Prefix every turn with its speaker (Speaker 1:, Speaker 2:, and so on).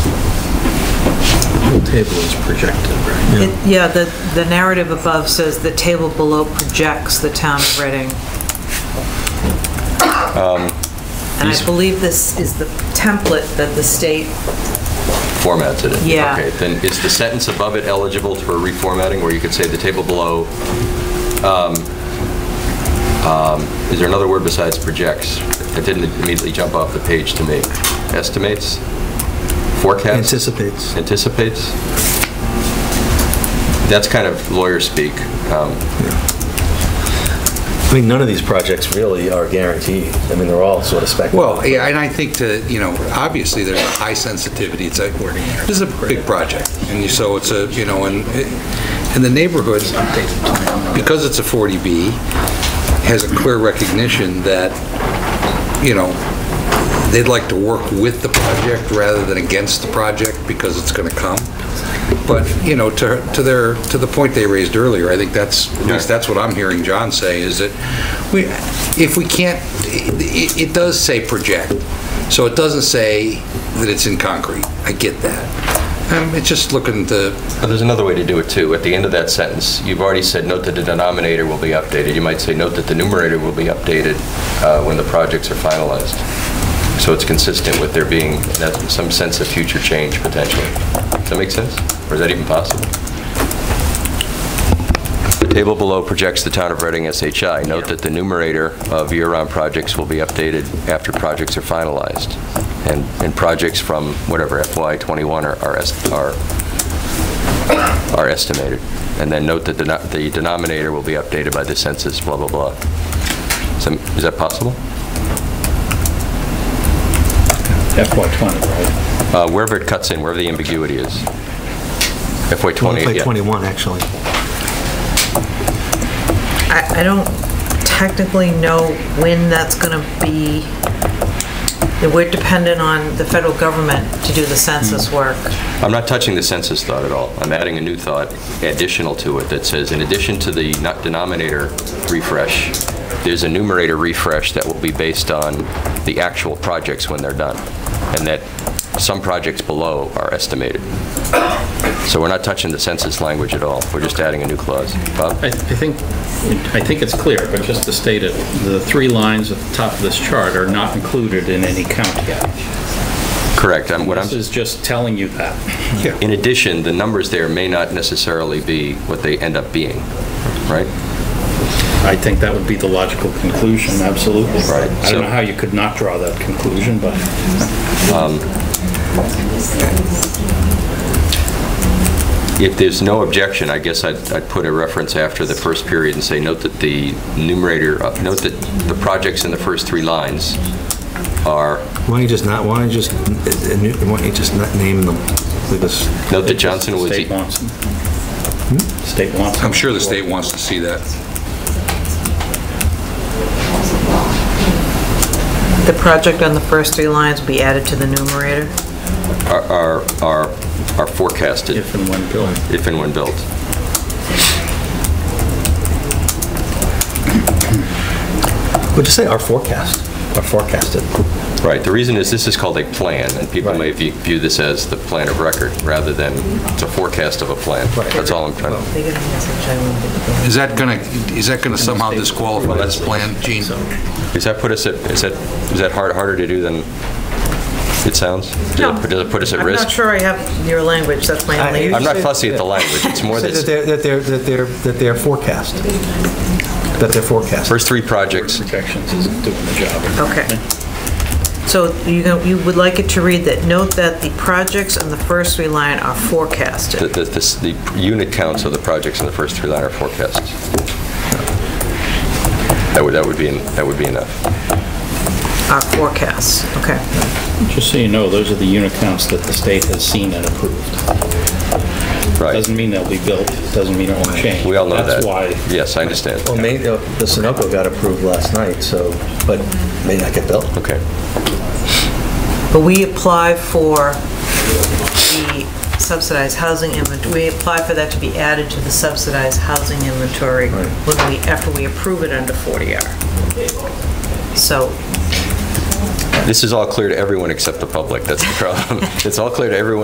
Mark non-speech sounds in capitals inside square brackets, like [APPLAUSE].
Speaker 1: actual table is projected, right?
Speaker 2: It- Yeah, the, the narrative above says the table below projects the town of Reading.
Speaker 3: Um,
Speaker 2: And I believe this is the template that the state,
Speaker 3: formatted it.
Speaker 2: Yeah.
Speaker 3: Okay, then is the sentence above it eligible for reformatting, where you could say the table below, um, um, is there another word besides projects? It didn't immediately jump off the page to me. Estimates? Forecasts?
Speaker 1: Anticipates.
Speaker 3: Anticipates? That's kind of lawyer speak. Um,
Speaker 4: I mean, none of these projects really are guaranteed. I mean, they're all sort of speculative.
Speaker 5: Well, yeah, and I think to, you know, obviously, there's a high sensitivity, it's like, this is a big project, and you- so it's a, you know, and, and the neighborhood, because it's a 40B, has a clear recognition that, you know, they'd like to work with the project rather than against the project, because it's going to come. But, you know, to, to their, to the point they raised earlier, I think that's, at least that's what I'm hearing John say, is that we, if we can't, it, it- it does say project, so it doesn't say that it's in concrete. I get that. Um, it's just looking to,
Speaker 3: But there's another way to do it, too. At the end of that sentence, you've already said, note that the denominator will be updated. You might say, note that the numerator will be updated uh, when the projects are finalized. So it's consistent with there being that- some sense of future change potentially. Does that make sense? Or is that even possible? The table below projects the town of Reading SHI. Note that the numerator of year-round projects will be updated after projects are finalized. And and projects from whatever FY '21 are are est- are are estimated. And then note that the deno- the denominator will be updated by the census, blah, blah, blah. So, Is that possible?
Speaker 1: FY '20, right?
Speaker 3: Uh, Wherever it cuts in, wherever the ambiguity is. FY '20,
Speaker 1: FY
Speaker 3: yeah.
Speaker 1: '21, actually.
Speaker 2: I, I don't technically know when that's gonna be. We're dependent on the federal government to do the census
Speaker 3: Hmm.
Speaker 2: work.
Speaker 3: I'm not touching the census thought at all. I'm adding a new thought additional to it that says, in addition to the not- denominator refresh, there's a numerator refresh that will be based on the actual projects when they're done, and that some projects below are estimated. So we're not touching the census language at all. We're just adding a new clause. Bob?
Speaker 6: I I think, I think it's clear, but just to state it, the three lines at the top of this chart are not included in any count yet.
Speaker 3: Correct. I'm- What I'm
Speaker 6: This is just telling you that.
Speaker 3: In addition, the numbers there may not necessarily be what they end up being, right?
Speaker 6: I think that would be the logical conclusion, absolutely.
Speaker 3: Right.
Speaker 6: I don't know how you could not draw that conclusion, but
Speaker 3: If there's no objection, I guess I'd, I'd put a reference after the first period and say, note that the numerator, uh, note that the projects in the first three lines are,
Speaker 1: Why don't you just not, why don't you just, uh, uh, nu- why don't you just not name them? Leave us-
Speaker 3: note that Johnson was,
Speaker 6: state wants them. State wants them.
Speaker 5: I'm sure the state wants to see that.
Speaker 2: The project on the first three lines will be added to the numerator.
Speaker 3: are- are, are are forecasted
Speaker 6: If and when built.
Speaker 3: if and when built.
Speaker 4: Would you say our forecast? Our forecasted?
Speaker 3: Right, the reason is this is called a plan, and people may
Speaker 4: Right.
Speaker 3: view view this as the plan of record, rather than it's a forecast of a plan. That's all I'm trying to...
Speaker 2: They get a message, I won't be-
Speaker 5: Is that going to, is that going to somehow disqualify this plan, Gene?
Speaker 3: Does that put us at, is that, is that hard, harder to do than it sounds? Does
Speaker 2: No.
Speaker 3: it- Does it put us at
Speaker 2: I'm
Speaker 3: risk?
Speaker 2: not sure I have your language, that's my only
Speaker 3: I'm not fussy at the
Speaker 2: [LAUGHS]
Speaker 3: language, it's more
Speaker 1: Say That
Speaker 3: that,
Speaker 1: they're, that they're, that they're, that they're forecast. That they're forecast.
Speaker 3: first three projects,
Speaker 6: Projections isn't doing the job.
Speaker 2: Okay. So you go- you would like it to read that, note that the projects on the first three line are
Speaker 3: the,
Speaker 2: forecasted.
Speaker 3: the, this- the unit counts of the projects in the first three line are forecasts. That would, that would be, en- that would be enough.
Speaker 2: Are forecasts, okay.
Speaker 6: Just so you know, those are the unit counts that the state has seen and approved.
Speaker 3: Right.
Speaker 6: Doesn't mean they'll be built, doesn't mean it won't change.
Speaker 3: We all know that.
Speaker 6: That's why Oh.
Speaker 3: Yes, I understand.
Speaker 4: Well, maybe, uh, the Sunoco got approved last night, so, but may not get built.
Speaker 3: Okay.
Speaker 2: But we apply for the subsidized housing inventory, we apply for that to be added to the subsidized housing inventory when we, after we approve it under 40R. So
Speaker 3: [LAUGHS] This is all clear to everyone except the public, that's the problem. It's all clear to everyone